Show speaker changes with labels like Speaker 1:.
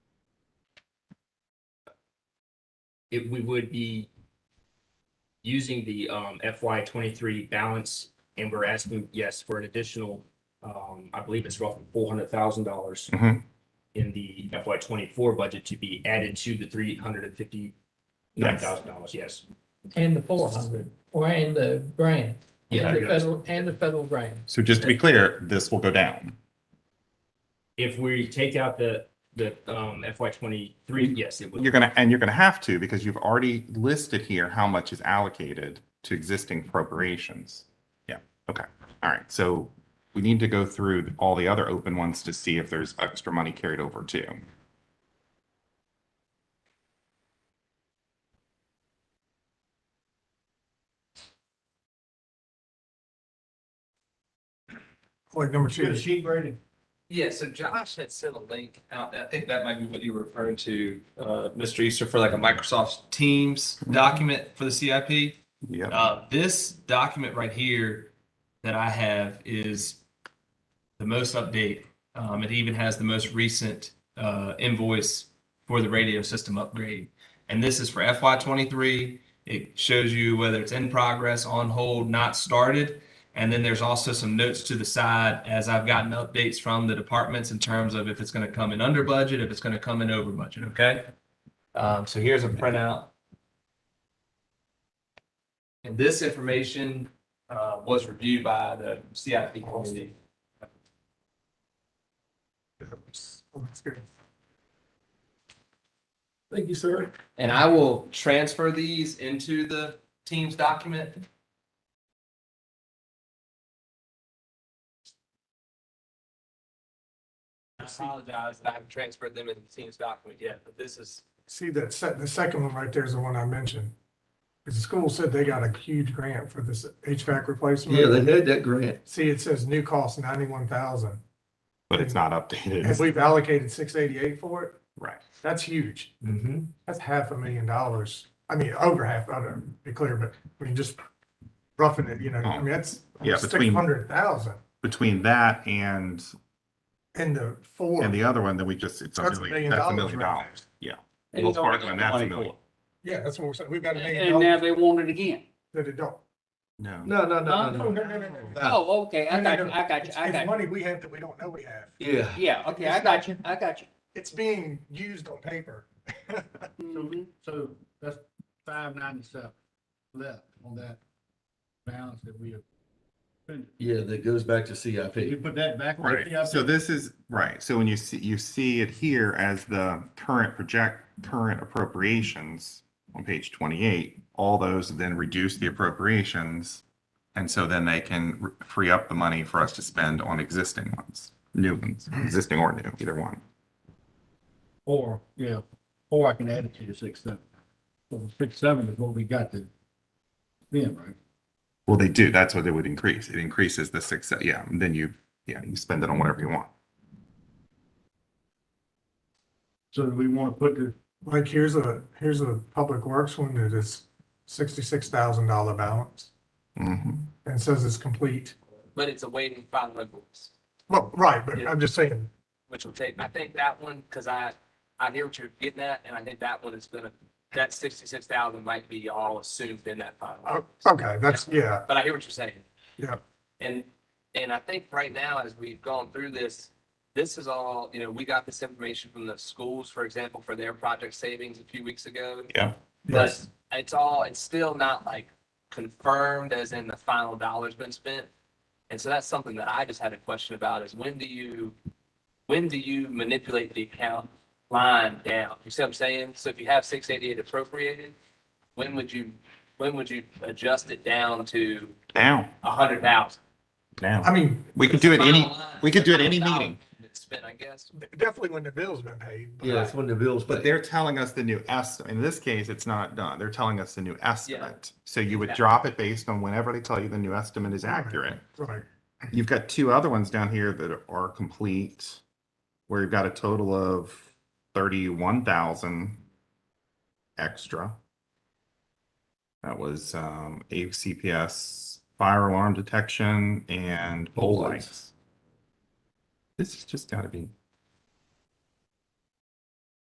Speaker 1: it, we would be using the, um, FY twenty-three balance and we're asking, yes, for an additional, um, I believe it's roughly four hundred thousand dollars
Speaker 2: Mhm.
Speaker 1: in the FY twenty-four budget to be added to the three hundred and fifty-nine thousand dollars, yes.
Speaker 3: and the four hundred, or and the grant,
Speaker 1: Yeah,
Speaker 3: and the
Speaker 1: I guess.
Speaker 3: federal, and the federal grant.
Speaker 2: So just to be clear, this will go down.
Speaker 1: If we take out the, the, um, FY twenty-three, yes, it would.
Speaker 2: You're gonna, and you're gonna have to, because you've already listed here how much is allocated to existing appropriations. Yeah, okay, all right, so we need to go through all the other open ones to see if there's extra money carried over too.
Speaker 4: Point number two.
Speaker 5: Yeah, so Josh had sent a link out, I think that might be what you were referring to, uh, Mr. Easter, for like a Microsoft Teams document for the CIP.
Speaker 2: Yeah,
Speaker 5: Uh, this document right here that I have is the most update. Um, it even has the most recent, uh, invoice for the radio system upgrade. And this is for FY twenty-three. It shows you whether it's in progress, on hold, not started. And then there's also some notes to the side as I've gotten updates from the departments in terms of if it's gonna come in under budget, if it's gonna come in over budget, okay? Um, so here's a printout and this information uh, was reviewed by the CIP committee.
Speaker 4: Thank you, sir.
Speaker 5: And I will transfer these into the Teams document. I apologize that I haven't transferred them into the Teams document yet, but this is.
Speaker 4: See that se- the second one right there is the one I mentioned. Because the school said they got a huge grant for this HVAC replacement.
Speaker 5: had that grant.
Speaker 4: See, it says new cost ninety-one thousand.
Speaker 2: but it's not
Speaker 4: If
Speaker 2: updated,
Speaker 4: we've allocated six eighty-eight for it,
Speaker 2: right?
Speaker 4: that's huge. That's half a million dollars. I mean, over half, I don't to be clear, but we can just roughing it, you know, I mean, that's
Speaker 2: Yeah,
Speaker 4: six
Speaker 2: between-
Speaker 4: hundred thousand.
Speaker 2: Between that and,
Speaker 4: And the four,
Speaker 2: and the other one, then we just, it's a
Speaker 4: That's a
Speaker 2: million,
Speaker 4: million
Speaker 2: that's a
Speaker 4: dollars
Speaker 2: million
Speaker 4: right there.
Speaker 2: dollars, yeah.
Speaker 6: And
Speaker 2: Well,
Speaker 6: it's already
Speaker 2: Parkland,
Speaker 6: got
Speaker 2: that's a
Speaker 6: money for
Speaker 2: million.
Speaker 4: yeah, that's what we're saying. We've got a
Speaker 6: it.
Speaker 4: million
Speaker 6: And now
Speaker 4: dollars
Speaker 6: they want it again.
Speaker 4: that it don't.
Speaker 2: No.
Speaker 5: No, no,
Speaker 6: no,
Speaker 4: Ah.
Speaker 6: Oh, okay, I got you, I got you,
Speaker 4: It's
Speaker 6: I
Speaker 4: it's
Speaker 6: got
Speaker 4: money we have that we don't know we have.
Speaker 5: Yeah.
Speaker 6: you. Yeah, okay, I got you, I got you.
Speaker 4: It's being used on paper.
Speaker 6: Mhm.
Speaker 7: So that's five ninety-seven left on that balance that we have. spent.
Speaker 8: Yeah, that goes back to
Speaker 7: You
Speaker 8: CIP.
Speaker 7: put that back. in the
Speaker 2: Right, so
Speaker 7: CIP.
Speaker 2: this is, right, so when you see, you see it here as the current project, current appropriations on page twenty-eight, all those then reduce the appropriations. And so then they can re- free up the money for us to spend on existing ones, new ones, existing or new, either one.
Speaker 7: Or, yeah, or I can add it to the six seven. So six seven is what we got to then, right?
Speaker 2: Well, they do, that's what they would increase, it increases the six, uh, yeah, and then you, yeah, you spend it on whatever you want.
Speaker 7: So do we want to put the,
Speaker 4: Like, here's a, here's a public works one that is sixty-six thousand dollar balance
Speaker 2: Mhm.
Speaker 4: and says it's complete.
Speaker 5: But it's awaiting final invoice,
Speaker 4: Well, right, but I'm just saying,
Speaker 5: which will take, I think that one, because I, I hear what you're getting at, and I think that one is gonna, that sixty-six thousand might be all assumed in that final.
Speaker 4: oh,
Speaker 5: invoice.
Speaker 4: okay, that's, yeah,
Speaker 5: But I hear what you're saying.
Speaker 4: Yeah.
Speaker 5: And, and I think right now, as we've gone through this, this is all, you know, we got this information from the schools, for example, for their project savings a few weeks ago.
Speaker 2: Yeah.
Speaker 5: But it's all, it's still not like confirmed as in the final dollar's been spent. And so that's something that I just had a question about is when do you, when do you manipulate the account line down? You see what I'm saying? So if you have six eighty-eight appropriated, when would you, when would you adjust it down to
Speaker 2: Now,
Speaker 5: a hundred thousand?
Speaker 2: now,
Speaker 4: I mean,
Speaker 2: we could do it any, we could do it any
Speaker 5: Dollar
Speaker 2: meeting.
Speaker 5: It's spent, I guess.
Speaker 4: definitely when the bill's been paid. but-
Speaker 8: Yeah, it's when the bills.
Speaker 2: But they're telling us the new estimate. In this case, it's not done. They're telling us the new estimate. So you would
Speaker 5: Yeah.
Speaker 2: drop it based on whenever they tell you the new estimate is accurate.
Speaker 4: Right,
Speaker 2: You've got two other ones down here that are complete, where you've got a total of thirty-one thousand extra. That was um ACPS fire alarm detection and pole
Speaker 8: Pole
Speaker 2: lights. This has just gotta be